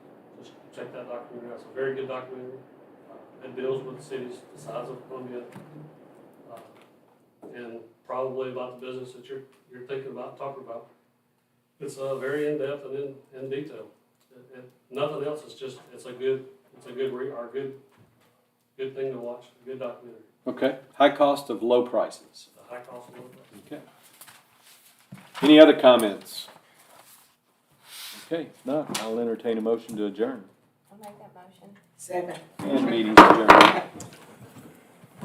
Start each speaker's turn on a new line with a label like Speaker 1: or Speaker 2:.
Speaker 1: check that documentary out. It's a very good documentary. Uh, It deals with cities the size of Columbia. uh, And probably about the business that you're, you're thinking about, talking about. It's, uh, very in-depth and in, in detail. It- it- Nothing else, it's just, it's a good, it's a good re, or good, good thing to watch, a good documentary.
Speaker 2: Okay, high cost of low prices.
Speaker 1: The high cost of living.
Speaker 2: Okay. Any other comments? Okay, if not, I'll entertain a motion to adjourn.
Speaker 3: I'll make that motion.
Speaker 4: Second.
Speaker 2: And meeting's adjourned.